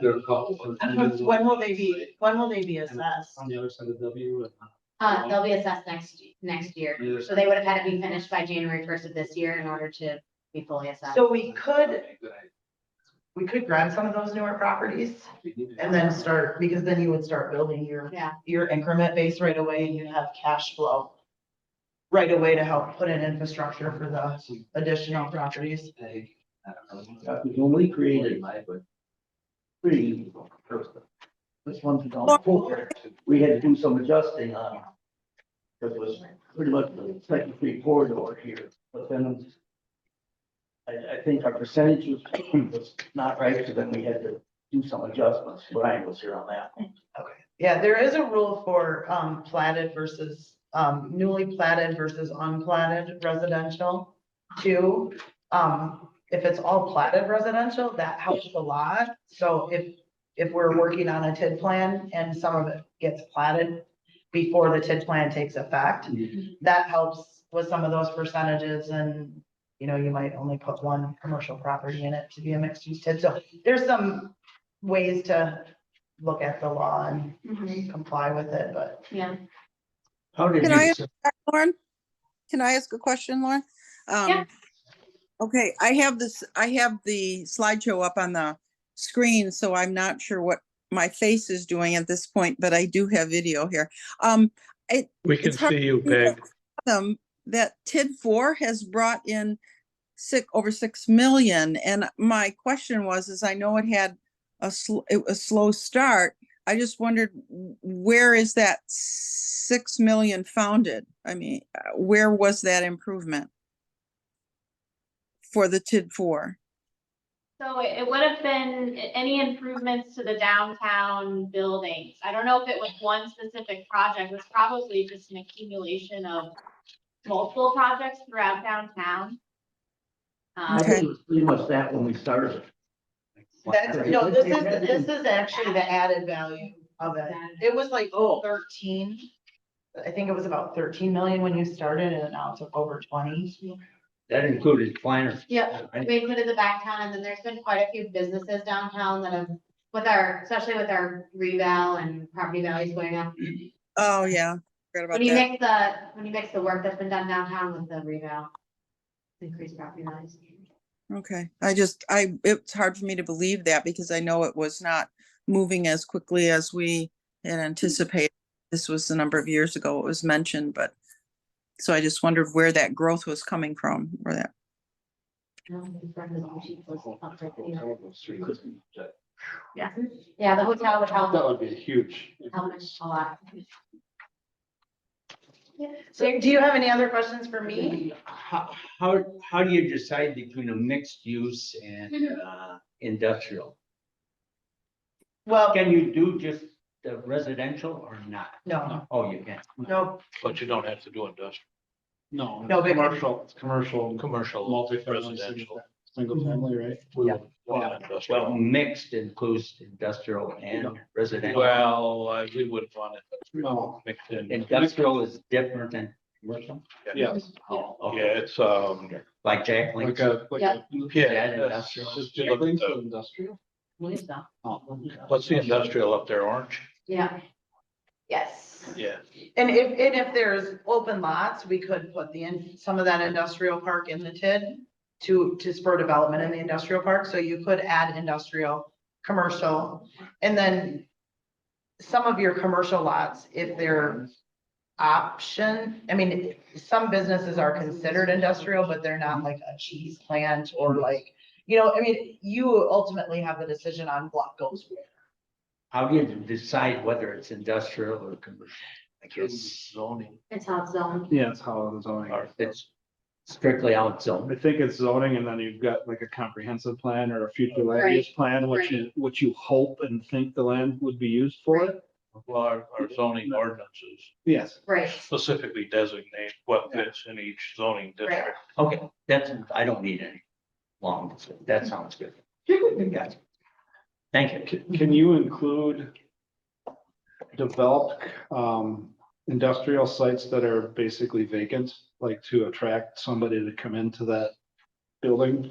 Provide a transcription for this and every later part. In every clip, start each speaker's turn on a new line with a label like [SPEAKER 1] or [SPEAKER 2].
[SPEAKER 1] They're called.
[SPEAKER 2] When will they be, when will they be assessed?
[SPEAKER 1] On the other side of W. and
[SPEAKER 3] Uh, they'll be assessed next, next year,
[SPEAKER 1] on the other
[SPEAKER 3] so
[SPEAKER 1] side-
[SPEAKER 3] they would have had to be finished by January first of this year in order to be fully assessed.
[SPEAKER 2] So we could,
[SPEAKER 4] we could grab some of those newer properties
[SPEAKER 1] We need to-
[SPEAKER 4] and then start, because then you would start building your,
[SPEAKER 3] Yeah,
[SPEAKER 4] your increment base right away and you'd have cash flow right away to help put in infrastructure for the additional properties.
[SPEAKER 1] Hey, I don't know.
[SPEAKER 5] Uh, We've only created three first. This one's gone forward. We had to do some adjusting on. it. That was pretty much the second three corridor here, but then. I, I think our percentage was, was not right, so then we had to do some adjustments. Brian was here on that.
[SPEAKER 4] Yeah, there is a rule for um platted versus um newly platted versus unplatted residential too. Um, if it's all platted residential, that helps a lot. So if if we're working on a TID plan and some of it gets platted before the TID plan takes effect, that helps with some of those percentages and you know, you might only put one commercial property in it to be a mixed use TID. So there's some ways to look at the law and comply with it, but
[SPEAKER 3] yeah,
[SPEAKER 5] How did
[SPEAKER 6] Can I
[SPEAKER 5] you,
[SPEAKER 6] ask Lauren? Can I ask a question, Lauren? Um,
[SPEAKER 3] Yeah.
[SPEAKER 6] Okay, I have this, I have the slideshow up on the screen, so I'm not sure what my face is doing at this point, but I do have video here. Um,
[SPEAKER 7] We can
[SPEAKER 6] It's hard
[SPEAKER 7] see you,
[SPEAKER 6] to do
[SPEAKER 7] Peg.
[SPEAKER 6] um, that TID four has brought in sick, over six million, and my question was, is I know it had a sl- it was a slow start. I just wondered, w- where is that six million founded? I mean, uh, where was that improvement? For the TID four?
[SPEAKER 8] So it it would have been a- any improvements to the downtown buildings. I don't know if it was one specific project, it was probably just an accumulation of multiple projects throughout downtown. Um,
[SPEAKER 5] I
[SPEAKER 6] Okay.
[SPEAKER 5] think it was pretty much that when we started.
[SPEAKER 4] that's, no, this is, this is actually the added value of it. It was like thirteen. I think it was about thirteen million when you started and now it's over twenty.
[SPEAKER 5] That included Kleiner.
[SPEAKER 3] yeah, we included the backtown, and then there's been quite a few businesses downtown that have, with our, especially with our reval and property values going up.
[SPEAKER 6] Oh, yeah. Forgot about
[SPEAKER 3] When you
[SPEAKER 6] that.
[SPEAKER 3] mix the, when you mix the work that's been done downtown with the reval, increased property values.
[SPEAKER 6] Okay, I just, I, it's hard for me to believe that because I know it was not moving as quickly as we had anticipated. This was a number of years ago it was mentioned, but so I just wondered where that growth was coming from, where that,
[SPEAKER 3] Yeah, yeah, the hotel would help,
[SPEAKER 1] That would be huge.
[SPEAKER 3] help much a lot.
[SPEAKER 4] So do you have any other questions for me?
[SPEAKER 5] How, how, how do you decide between a mixed use and,
[SPEAKER 6] Mm-hmm.
[SPEAKER 5] uh, industrial?
[SPEAKER 4] Well,
[SPEAKER 5] Can you do just the residential or not?
[SPEAKER 4] no,
[SPEAKER 5] Oh, you can.
[SPEAKER 4] no,
[SPEAKER 9] But you don't have to do industrial,
[SPEAKER 1] No.
[SPEAKER 4] No, but-
[SPEAKER 1] Commercial, it's commercial,
[SPEAKER 9] commercial,
[SPEAKER 1] multifamily,
[SPEAKER 9] Residential.
[SPEAKER 1] single family, right?
[SPEAKER 5] Yeah.
[SPEAKER 9] not
[SPEAKER 5] Well,
[SPEAKER 9] industrial.
[SPEAKER 5] well, mixed includes industrial and residential.
[SPEAKER 9] Well, I- we would want it
[SPEAKER 1] No.
[SPEAKER 9] mixed in.
[SPEAKER 5] Industrial is different than commercial,
[SPEAKER 1] Yes,
[SPEAKER 5] Oh,
[SPEAKER 9] Yeah,
[SPEAKER 5] okay.
[SPEAKER 9] it's, um,
[SPEAKER 5] like Jack
[SPEAKER 1] like
[SPEAKER 5] Link's.
[SPEAKER 1] a, like a.
[SPEAKER 9] yeah. that's-
[SPEAKER 5] industrial.
[SPEAKER 9] just
[SPEAKER 1] Jack
[SPEAKER 9] look at
[SPEAKER 1] Link's
[SPEAKER 9] the-
[SPEAKER 1] industrial.
[SPEAKER 3] Believe so.
[SPEAKER 1] Oh.
[SPEAKER 9] What's the industrial up there, orange?
[SPEAKER 3] Yeah,
[SPEAKER 4] yes.
[SPEAKER 9] Yeah.
[SPEAKER 4] And if, and if there's open lots, we could put the, in some of that industrial park in the TID to, to spur development in the industrial park, so you could add industrial, commercial, and then some of your commercial lots, if they're option, I mean, some businesses are considered industrial, but they're not like a cheese plant or like, you know, I mean, you ultimately have the decision on what goes where.
[SPEAKER 5] How do you decide whether it's industrial or commercial? I guess
[SPEAKER 9] Zoning.
[SPEAKER 3] it's hot zone.
[SPEAKER 1] Yeah, it's how I'm zoning.
[SPEAKER 5] or if it's strictly out
[SPEAKER 1] I
[SPEAKER 5] zone.
[SPEAKER 1] think it's zoning and then you've got like a comprehensive plan or a future land
[SPEAKER 3] Right,
[SPEAKER 1] use plan, which you, which you hope and think the land would be used for.
[SPEAKER 9] Well, our, our zoning ordinances
[SPEAKER 1] Yes.
[SPEAKER 3] Right,
[SPEAKER 9] specifically designate what fits in each zoning district.
[SPEAKER 5] Okay, that's, I don't need any long, that sounds good. Gotcha. Thank you.
[SPEAKER 1] Can, can you include developed, um, industrial sites that are basically vacant, like to attract somebody to come into that building?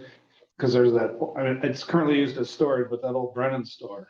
[SPEAKER 1] Cause there's that, I mean, it's currently used as storage, but that old Brennan store